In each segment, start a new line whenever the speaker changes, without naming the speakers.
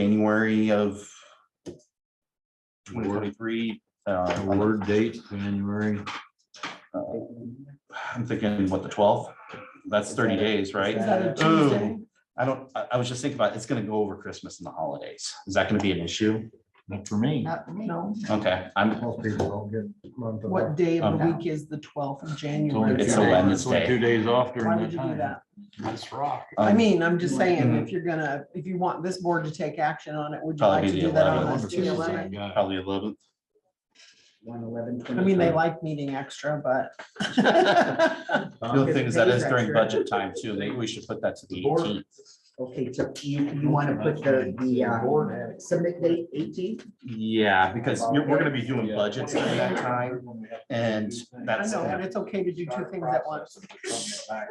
January of twenty
Word-
twenty-three. Uh, like,
Award date, January.
uh, I'm thinking, what, the twelfth? That's thirty days, right?
Is that a
Ooh.
Tuesday?
I don't, I, I was just thinking about, it's gonna go over Christmas and the holidays. Is that gonna be an issue?
Not for me.
Not for me. No.
Okay, I'm,
Most people don't get month of.
What day of the
Um,
week is the twelfth of
It's only
January?
It's
two
a
days-
Wednesday.
only Two days off
Why
during
would
that
you do
time.
that?
That's rock.
Um,
I mean, I'm just saying,
Mhm.
if you're gonna, if you want this board to take action on it, would you
Probably
like to
the
do that on
11th.
this Tuesday?
Yeah.
probably eleventh.
One eleven
I
twenty.
mean, they like meeting extra, but.
The other thing is that is during
Page pressure.
budget time too. Maybe we should put that to the eighteenth.
Okay, so you, you want to put the, the, uh, submit date eighteen?
Yeah, because you're, we're gonna be doing budgets during that time and
I
that's,
know, but it's okay to do two things at once, I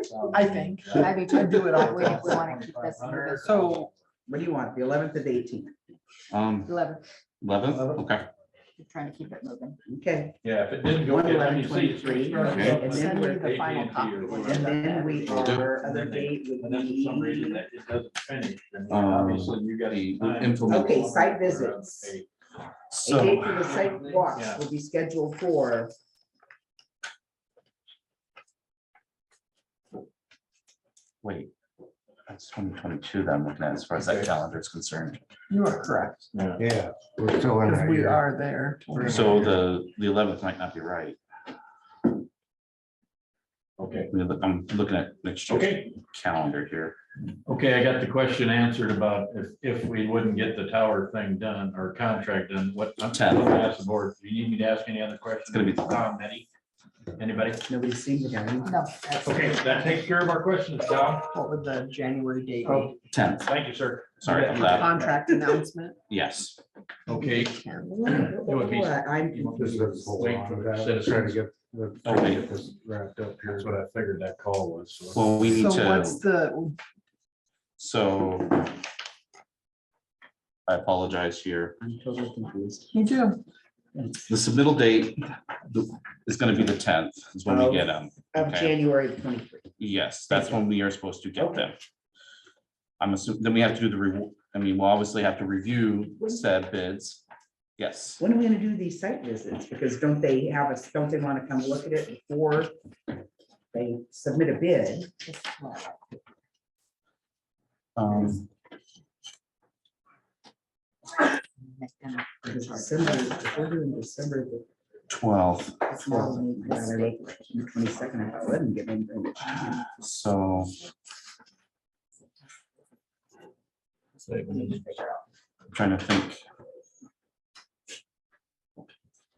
I
think.
I do
I do it all.
We want to keep this moving.
So
What do you want, the eleventh or the eighteenth?
um,
Eleven,
eleventh, okay.
trying to keep it moving.
Okay,
Yeah, if it didn't
go good, I mean, see, it's
three.
Okay. And then
send me the final copy.
and then we,
Will do.
our other date would
And then for some reason
be,
that just doesn't finish, then
Um,
obviously you got.
the
time.
implement-
Okay, site visits. a date
So,
for the site walks will be scheduled for.
wait. That's twenty twenty-two that I'm looking at as far as that calendar is concerned.
you are correct,
Yeah.
Yeah, we're still in
because
that
we
year.
are there.
So the, the eleventh might not be right.
Okay,
I mean, look- I'm looking at next year's
okay,
calendar here.
okay, I got the question answered about if, if we wouldn't get the tower thing done or contract done, what, I'm
Ten.
gonna ask the board, do you need me to ask any other questions?
It's gonna be-
Tom, any, anybody?
Nobody sees it. I mean.
No. that's-
Okay, that takes care of our questions, Tom,
What would the January date
Oh.
be?
Tenth,
thank you, sir.
Sorry about
And
Uh,
that.
Contract announcement.
yes.
Okay, would be-
Well, I'm
This is
confused.
the whole lot of that. Trying to get the- trying to get this wrapped up here.
that's what I figured that call was. so-
Well, we
So
need
what's
to,
the,
so. I apologize here.
I'm totally confused.
you do,
The submittal date is gonna be the tenth is when we get them.
Of
Okay.
January twenty-three.
Yes, that's when we are supposed to get them. I'm assuming, then we have to do the, re- I mean, we'll obviously have to review said bids. Yes,
When are we gonna do these site visits? Because don't they have us, don't they want to come look at it before they submit a bid?
um,
December, if we're doing December, the
twelfth,
That's more than we got already. The 22nd, I wouldn't give them permission.
so.
Saving it.
I'm trying to think.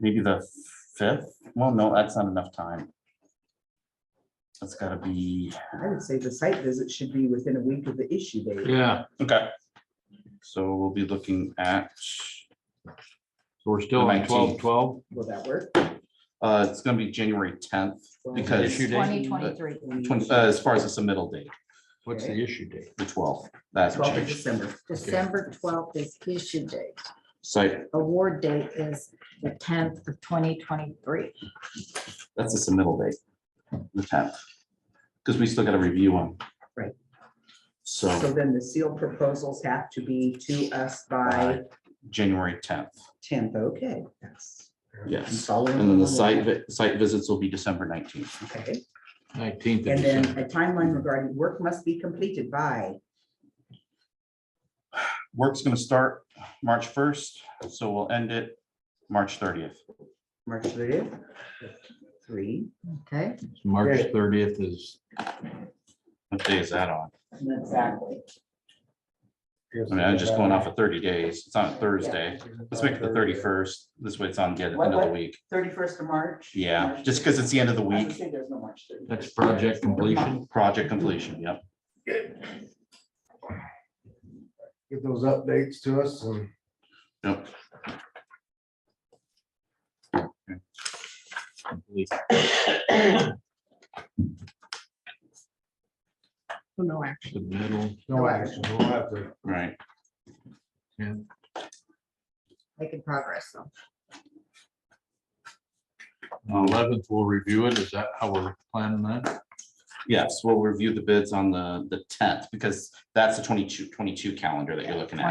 Maybe the fifth? Well, no, that's not enough time. That's gotta be,
I would say the site visit should be within a week of the issue date.
Yeah,
okay. So we'll be looking at,
so we're still on twelve,
19th.
twelve.
Will that work?
uh, it's gonna be January tenth, because,
Issue date?
Twenty twenty-three.
twen- uh, as far as the submittal date,
What's the issue date?
the twelfth, that's
Twelfth of
changed.
December.
December twelfth is issue date.
So
Award date is the tenth of twenty twenty-three.
that's the submittal date, the tenth. Because we still gotta review them.
Right. So
So,
then the sealed proposals have to be to us by
January tenth,
tenth, okay. that's- I'm
yes.
following
And then the
along.
site, vi- site visits will be December nineteenth.
Okay,
Nineteenth of
and then
December.
a timeline regarding work must be completed by,
Work's gonna start March first, so we'll end it March thirtieth.
March thirtieth. Three.
Okay.
March thirtieth is,
What day is that on?
Exactly.
I mean, I'm just going off of thirty days. It's on a Thursday. Let's make it the thirty-first. This way it's on the end end of the week.
Thirty-first of March.
Yeah,
March
just because it's the end of the
31st. I would
week,
say there's no March 31st.
that's project completion.
project completion, yep.
Get those updates to us and.
Yep.
Oh, no action.
Submittal.
No action, we'll have to.
Right.
Making progress, so.
Eleventh, we'll review it. Is that how we're planning that?
Yes, we'll review the bids on the, the tenth, because that's the 22 22 calendar that you're looking at.